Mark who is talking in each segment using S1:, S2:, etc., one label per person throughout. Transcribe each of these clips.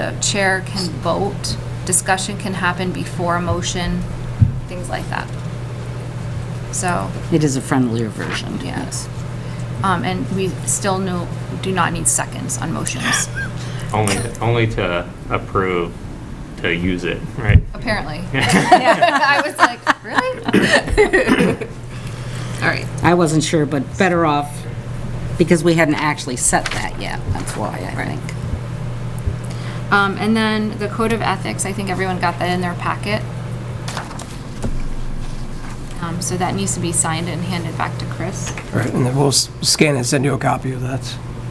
S1: the chair can vote, discussion can happen before a motion, things like that. So,
S2: It is a friendlier version.
S1: yes. Um, and we still no, do not need seconds on motions,
S3: Only, only to approve to use it, right?
S1: apparently. I was like, really? All right.
S2: I wasn't sure, but better off, because we hadn't actually set that yet. That's why, I think.
S1: Um, and then the code of ethics, I think everyone got that in their packet. Um, so that needs to be signed and handed back to Chris.
S4: All right, and then we'll s- scan and send you a copy of that.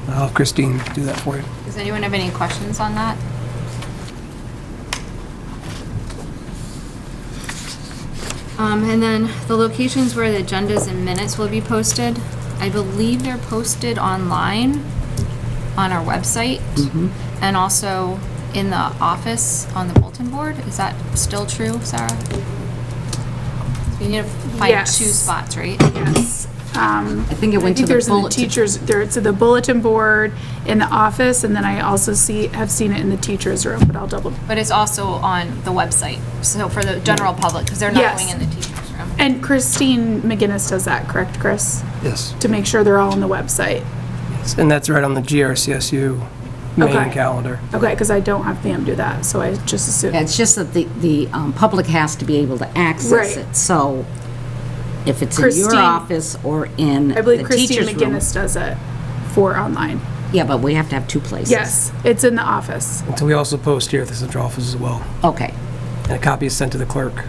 S4: I'll have Christine do that for you.
S1: Does anyone have any questions on that? Um, and then the locations where the agendas and minutes will be posted. I believe they're posted online on our website and also in the office on the bulletin board. Is that still true, Sarah? We need to find two
S5: Yes.
S1: spots, right?
S5: Yes. Um, I
S2: think it went to the
S5: there's in
S2: bulletin-
S5: Teachers, there, it's in the bulletin board, in the office, and then I also see, have seen it in the teachers' room, but I'll double.
S1: But it's also on the website, so for the general public, because they're not
S5: Yes.
S1: going in the teacher's room.
S5: And Christine McGinnis does that, correct, Chris?
S4: Yes.
S5: To make sure they're all on the website.
S4: And that's right on the GRCSU
S5: Okay.
S4: main calendar.
S5: Okay, because I don't have Pam do that, so I just assume.
S2: Yeah, It's just that the, the um, public has to be able to access
S5: Right.
S2: it. So if it's in your
S5: Christine-
S2: office or in
S5: I believe
S2: the
S5: Christine
S2: teacher's room.
S5: McGinnis does it for online.
S2: Yeah, but we have to have two places.
S5: Yes, it's in the office.
S4: And so we also post here at the central office as well.
S2: Okay.
S4: And a copy is sent to the clerk,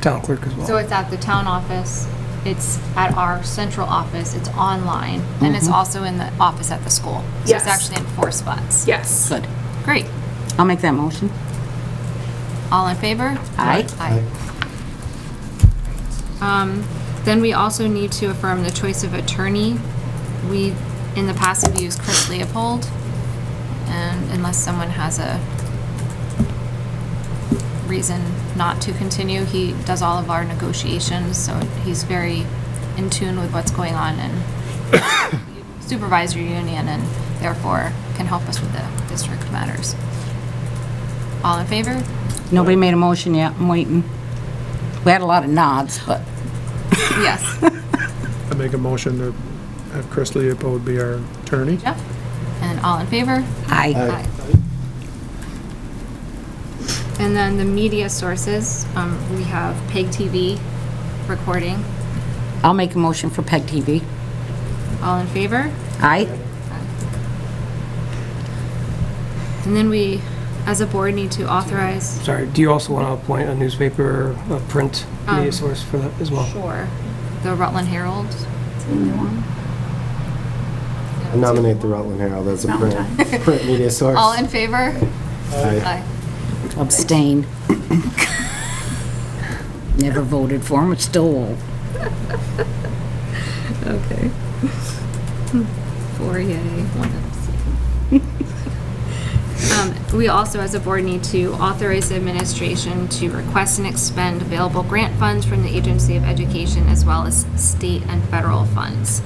S4: town clerk as
S1: So
S4: well.
S1: it's at the town office, it's at our central office, it's online, and it's also in the office at the school. So it's
S5: Yes.
S1: actually in four spots.
S5: Yes.
S2: Good.
S1: Great.
S2: I'll make that motion.
S1: All in favor?
S2: Aye.
S1: Aye. Um, Then we also need to affirm the choice of attorney. We, in the past, have used Chris Leopold, and unless someone has a reason not to continue, he does all of our negotiations, so he's very in tune with what's going on in supervisory union, and therefore can help us with the district matters. All in favor?
S2: Nobody made a motion yet. I'm waiting. We had a lot of nods, but
S1: Yes.
S6: I make a motion to have Chris Leopold be our attorney.
S1: Jeff? And all in favor?
S2: I,
S1: Aye. And then the media sources, um, we have PEG TV recording.
S2: I'll make a motion for PEG TV.
S1: All in favor?
S2: Aye?
S1: And then we, as a board, need to authorize.
S4: Sorry, do you also want to appoint a newspaper, or a print media source for that as well?
S1: Um, Sure. The Rutland Herald.
S7: I Nominate the Rutland Herald as a print, print media source.
S1: All in favor?
S7: Aye.
S2: Abstain. Never voted for him, but still will.
S1: Okay. Four yay, one abstain. Um, We also, as a board, need to authorize the administration to request and expend available grant funds from the Agency of Education as well as state and federal funds.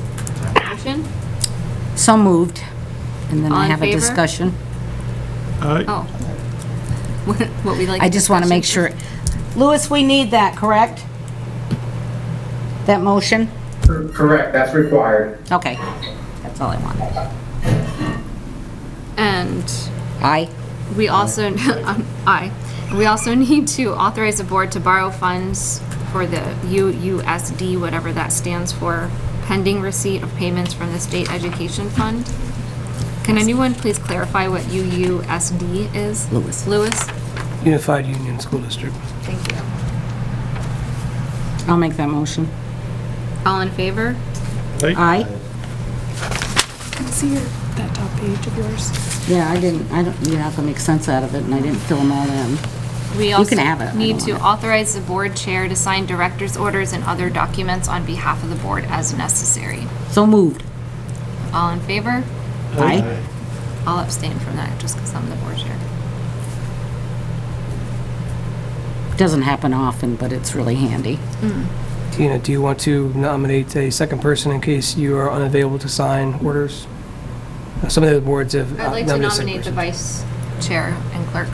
S1: Motion?
S2: So moved. And then
S1: All
S2: I
S1: in
S2: have a
S1: favor?
S2: discussion.
S6: Aye.
S1: Oh. What what we like.
S2: I just want to make sure.
S1: discussion?
S2: Louis, we need that, correct? That motion?
S8: Correct, that's required.
S2: Okay. That's all I wanted.
S1: And
S2: Aye?
S1: We also, um, aye. We also need to authorize the board to borrow funds for the UUSD, whatever that stands for, pending receipt of payments from the State Education Fund. Can anyone please clarify what UUSD is?
S2: Lewis.
S1: Lewis?
S4: Unified Union School District.
S1: Thank you.
S2: I'll make that motion.
S1: All in favor?
S2: Aye?
S5: Can I see your, that top page of yours?
S2: Yeah, I didn't, I don't, you have to make sense out of it, and I didn't fill them all in.
S1: We
S2: can have it.
S1: also
S2: I
S1: need
S2: don't
S1: to
S2: want
S1: authorize the board chair to sign director's orders and other documents on behalf of the board as necessary.
S2: So moved.
S1: All in favor?
S2: Aye?
S1: I'll abstain from that just because I'm the board chair.
S2: Doesn't happen often, but it's really handy.
S4: Tina, do you want to nominate a second person in case you are unavailable to sign orders? Uh, Some of the boards have
S1: I'd
S4: uh,
S1: like
S4: nominated
S1: to
S4: a second
S1: nominate the
S4: person.
S1: vice chair and clerk.